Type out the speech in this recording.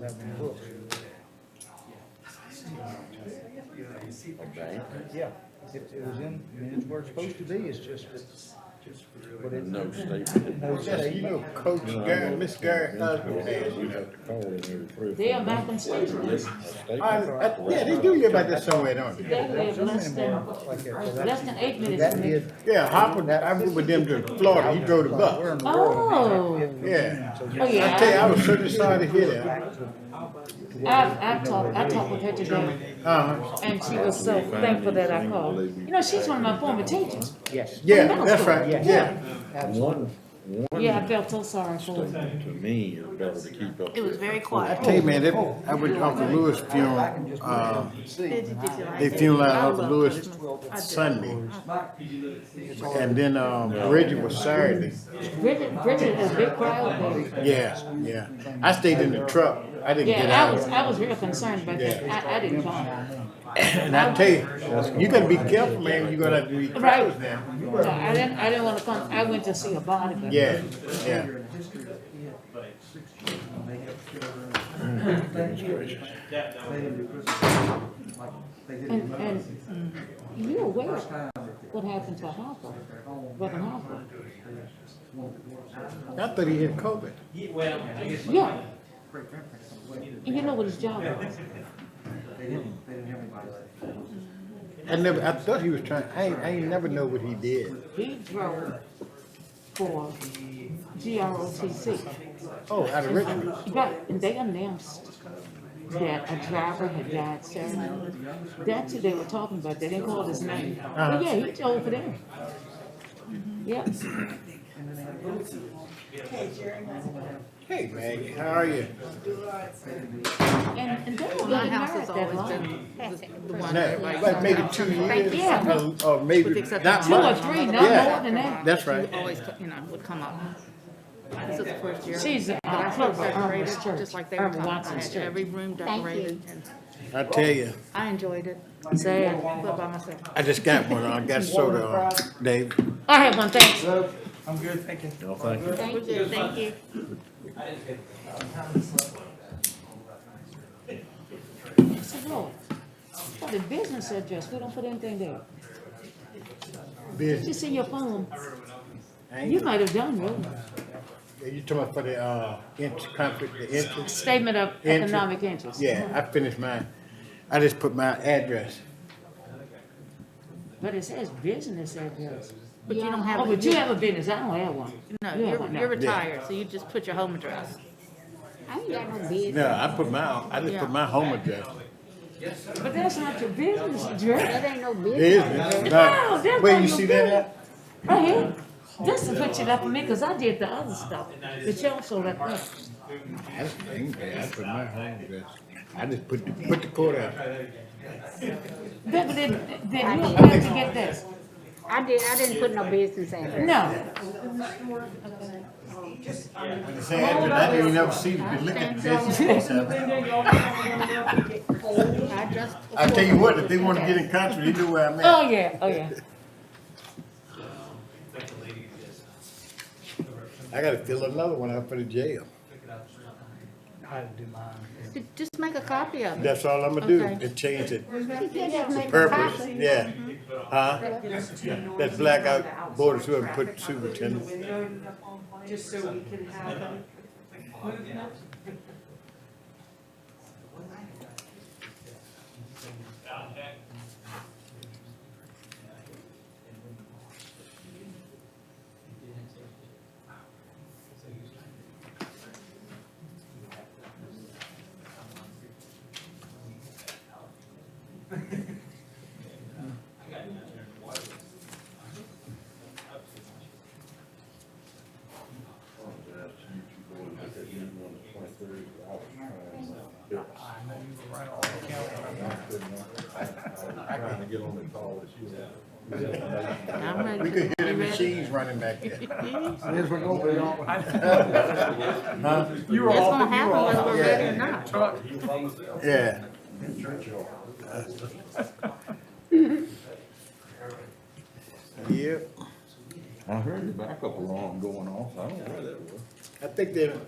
revenue books. okay? Yeah, it, it was in, I mean, it's where it's supposed to be, it's just that. But it, No statement. no Just, you state, know, Coach Gary, Miss Gary Husband says, You have to call in every three or They four are back in months. state. A statement. I, I, yeah, they do hear about this somewhere, don't they? They live less than, like that, so less that's, than eight minutes that from me. did. Yeah, Hopper, I went with them to Florida, he drove the Where bus. in the world? Oh. Yeah. So Oh, you- I tell you, I yeah. was certainly sorry to hear that. I've, I've talked, I talked with her today, Uh-huh, and she was so thankful that I called. You know, she's one of my former teachers. Yes. yeah, that's right, yeah. Absolutely. One, one Yeah, I felt so sorry for her. statement to me is better to keep up. It was with. very I quiet. tell you, man, that- I went to Uncle Lewis funeral, uh, they funeral Uncle Lewis Sunday. And then, um, Reggie was Saturday. Bridget, Bridget is a big crowd there. Yeah, yeah. I stayed in the truck. I didn't get Yeah, I out. was, I was real concerned, but I, I didn't call. And I tell you, you gotta be careful, man. You're gonna have to be Right. careful now. No, I didn't, I didn't wanna come, I went to see a body, but. Yeah, yeah. And, and you're aware of what happened to Harper, Reverend Harper? I thought he had COVID. Yeah. And you know what his job was? I never, I thought he was trying, I ain't, I ain't never know what he did. He drove for GROTC. Oh, out of Richmond. Right, and they announced that a driver had died Saturday. That's who they were talking about, they didn't call his name. But yeah, he drove for them. Yeah, Hey, man, how are you? and, and they were My getting house married has that always long. been the one Now, that like maybe two years, Yeah. or- or maybe not Two or much. three, Yeah. not more than that. That's right. always, you know, would come up. This is the first year. She's a But I had clerk at Irma's decorated, Church, Just like they were Irma talking, I Watson's had Church. every room decorated and I tell you, I enjoyed it, Sad. but by myself. I just got one. I got soda, uh, Dave. I have one, thanks. I'm good, thank you. No, thank you. Thank you. Thank you. I said, Lord, for the business address, we don't put anything there. Business. Just in your phone, I ain't- you might have done, really. You talking about for the, uh, int- conflict, the interest? Statement of Interest. economic interest. Yeah, I finished mine. I just put my address. But it says business address. But you don't have. Oh, but you have a business, I don't have one. No, You have you're, one, no. you're retired, so you just put your home address. I ain't got no business. No, I put my, I just put my home address. But that's not your business address. That ain't no It business. is, No, no, that's where not you your see that at? Right here, this is what you left for me, cause I did the other stuff, but you also left that. That's the thing, man, I put my home address. I just put, the put the court out. But but then, then you have to get this. I did, I didn't put no business in. No, When they say address, I didn't even ever see the delivery business. I just. I tell you what, if they wanna get in country, they do where I'm at. oh, yeah, oh, yeah. I gotta fill another one out for the jail. I do mine. Just make a copy of it. That's all I'm gonna do, Okay. and change it. Purpose, yeah. Mm-hmm. Huh? That blackout border through and put superintendent. Just so we can have movement. I gotta get on the call with you. I'm ready. We could hear the You ready? machines running back there. Here's what go, we don't- You It's gonna happen whether we're ready or not. Yeah. Yep, I heard the backup alarm going off. I don't know where that was. I think they,